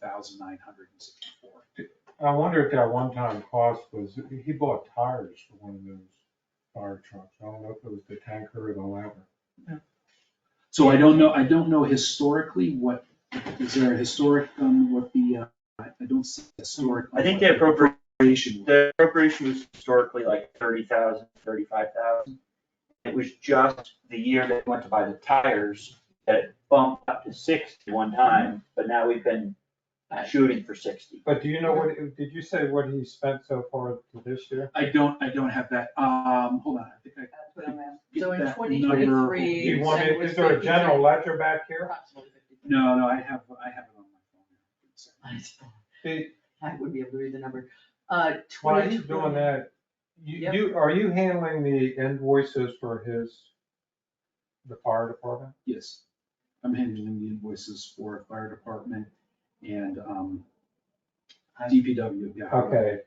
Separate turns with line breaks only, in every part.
thousand nine hundred and sixty-four.
I wonder if that one-time cost was, he bought tires for one of those fire trucks. I don't know if it was the tanker or the latter.
So I don't know, I don't know historically what, is there a historic, um, what the, uh, I I don't see historic.
I think the appropriate,
Appropriation.
the appropriation was historically like thirty thousand, thirty-five thousand. It was just the year that we went to buy the tires that it bumped up to sixty one time, but now we've been shooting for sixty.
But do you know what, did you say what he spent so far to this year?
I don't, I don't have that, um, hold on, I think I,
That's what I'm asking.
Get
So in
that
twenty
number.
twenty-three.
Do
You
you want, me- is there a general ledger back here?
no, no, I have, I have it on my phone.
See,
I would be able to read the number. Uh,
while
twenty.
you're doing that, you,
Yep.
you, are you handling the invoices for his, the fire department?
Yes, I'm handling the invoices for fire department and, um, DPW, yeah.
Okay,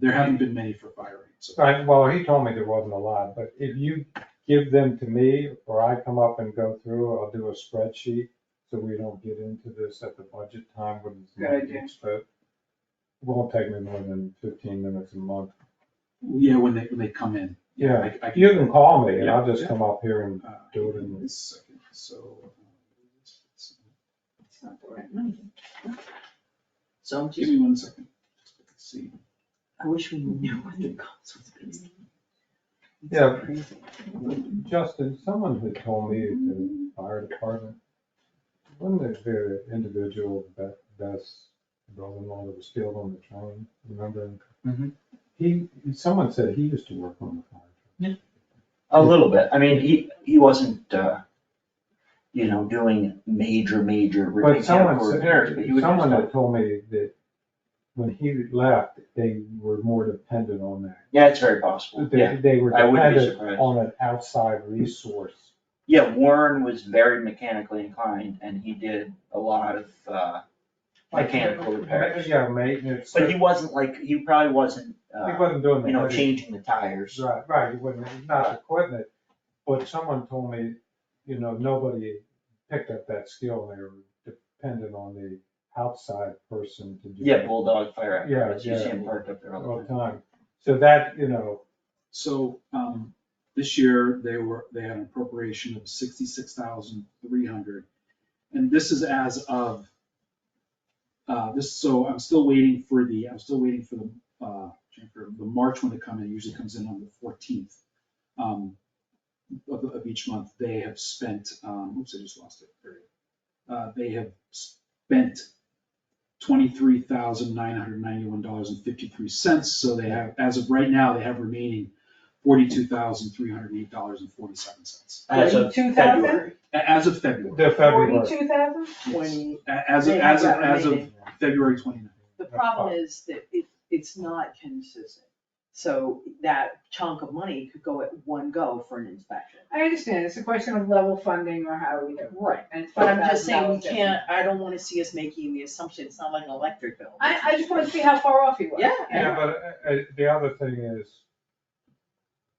There haven't been many for fire, so.
I, well, he told me there wasn't a lot, but if you give them to me, or I come up and go through, I'll do a spreadsheet, so we don't get into this at the budget time when it's
Good
not
idea.
being spent. Won't take me more than fifteen minutes a month.
Yeah, when they, when they come in.
Yeah,
I- I can-
you can call me, and I'll
Yeah,
just
yeah.
come up here and,
uh,
do it in-
this Second, so.
It's not the right money. So I'm
uh, Give
just,
me one second. Let's See,
I wish we knew what the cost was gonna be. It's
Yeah.
crazy.
Justin, someone had told me at the fire department, wasn't there the individual that, that's brother-in-law that was killed on the train, remember?
Mhm.
He, someone said he used to work on the fire. truck.
A little bit, I mean, he, he wasn't, uh, you know, doing major, major
But
repairs,
someone
repairs, but he
said,
was just
someone
like-
had told me that when he left, they were more dependent on that.
Yeah, it's very possible, yeah.
They, they were
I wouldn't be
dependent
surprised.
on an outside resource.
Yeah, Warren was very mechanically inclined and he did a lot of, uh, mechanical repairs.
Yeah, maintenance.
But
He
he wasn't like, he probably wasn't, uh,
wasn't doing the.
you know,
heavy
changing the tires.
Right, right, you wouldn't, not equipment, but someone told me, you know, nobody picked up that skill, they were dependent on the outside person to do.
Yeah,
it
bulldog fire apparatus, you
Yeah,
see
yeah.
him parked up there all
All
the
the
time.
time, so that, you know,
so, um, this year, they were, they had an appropriation of sixty-six thousand three hundred. And this is as of, uh, this, so I'm still waiting for the, I'm still waiting for the, uh, for the March one to come in, it usually comes in on the fourteenth. Um, of, of each month, they have spent, um, oops, I just lost it, there it is. uh, they have spent twenty-three thousand nine hundred ninety-one dollars and fifty-three cents, so they have, as of right now, they have remaining forty-two thousand three hundred eight dollars and forty-seven cents,
As of
Forty-two thousand?
February.
as of February.
the February.
Forty-two thousand?
Yes. A- As of,
They have
as of,
that
as of
remaining.
February 29th.
The problem is that it, it's not consistent. So that chunk of money could go at one go for an inspection.
I understand, it's a question of level funding or how we do. it.
Right.
And it's
But I'm just saying, we
$5,000 difference.
can't, I don't wanna see us making the assumption, it's not like an electric bill.
I, I just wanted to see how far off he was.
Yeah.
Yeah, but, uh, uh, the other thing is,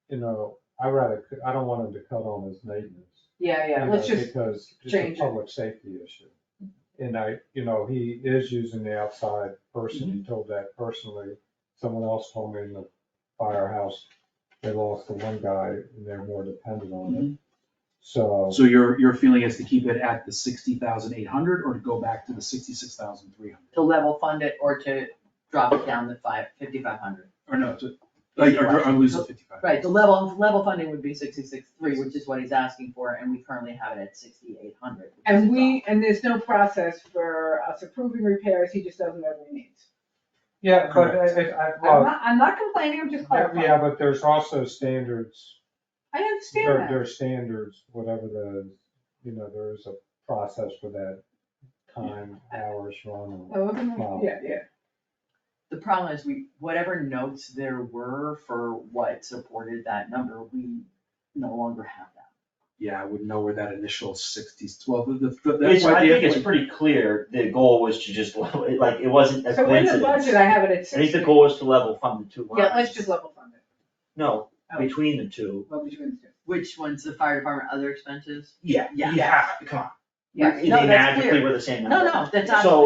you know, I rather, c- I don't want him to cut on his maintenance.
Yeah, yeah,
you
let's
know,
just,
Because it's a
change it.
public safety issue. And I, you know, he is using the outside person, he
Mm-hmm.
told that personally. Someone else told me in the firehouse, they lost the one guy and they're more dependent on
Mm-hmm.
it. So,
So your, your feeling is to keep it at the 60,800 or to go back to the 66,300?
To level fund it or to drop it down to five, fifty-five hundred.
Or no, to, like, or or lose the 55?
Right, the level, the level funding would be sixty-six three, which is what he's asking for, and we currently have it at sixty-eight hundred.
and we, and there's no process for us approving repairs, he just doesn't know what he needs.
yeah, but I, I, I-
I'm
well,
not, I'm not complaining, I'm just
yeah,
clarifying.
yeah, but there's also standards.
I
There,
understand
there
that.
are standards, whatever the, you know, there is a process for that time, hours, run.
Oh, okay,
Wow.
Yeah, yeah.
The problem is we, whatever notes there were for what supported that number, we no longer have that.
Yeah, I wouldn't know where that initial 60s, 12, the- the- that's
It's,
why
I think
they have
it's
like,
pretty clear, the goal was to just, level it, like, it wasn't a
So in the budget,
coincidence.
I have it at
I think
sixty.
the goal was to level fund the two lines.
Yeah, let's just level fund it.
No,
Oh.
between the two,
Well, between the two.
Which one's the fire department, other expenses?
yeah, you
Yeah.
have, to- come on.
Yeah,
They
no, that's
magically
clear.
were the same
No,
number.
no, that's not.
So,